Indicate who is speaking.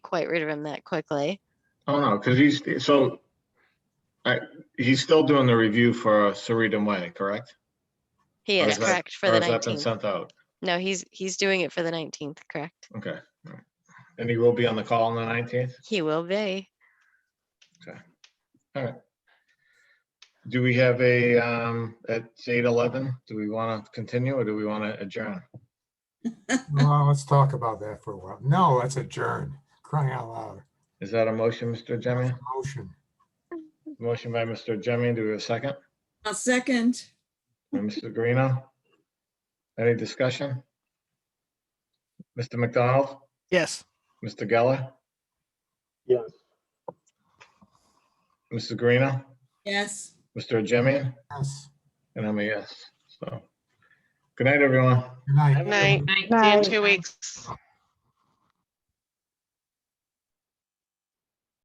Speaker 1: quite rid of him that quickly.
Speaker 2: Oh, no, because he's, so, I, he's still doing the review for uh, Sarita Way, correct?
Speaker 1: He
Speaker 2: Or
Speaker 1: is
Speaker 2: is that-
Speaker 1: correct for
Speaker 2: Or
Speaker 1: the
Speaker 2: has that been
Speaker 1: nineteenth.
Speaker 2: sent out?
Speaker 1: No, he's, he's doing it for the nineteenth, correct?
Speaker 2: Okay. all right. And he will be on the call on the nineteenth?
Speaker 1: He will be.
Speaker 2: Do we have a, um, at eight eleven, do we want to continue or do we want to adjourn?
Speaker 3: Well, let's talk about that for a while. No, let's adjourn. Crying out loud.
Speaker 2: Is that a motion, Mr. Jemian?
Speaker 3: Motion.
Speaker 2: Motion by Mr. Jemian, do we have a second?
Speaker 4: A second.
Speaker 2: By Mr. Guarino? Any discussion? Mr. McDonald?
Speaker 5: Yes.
Speaker 2: Mr. Geller?
Speaker 6: Yes.
Speaker 2: Mrs. Guarino?
Speaker 4: Yes.
Speaker 2: Mr. Jemian?
Speaker 3: Yes.
Speaker 2: And I'm a yes, so. Good night, everyone.
Speaker 3: Good night.
Speaker 7: Night, see you in two weeks.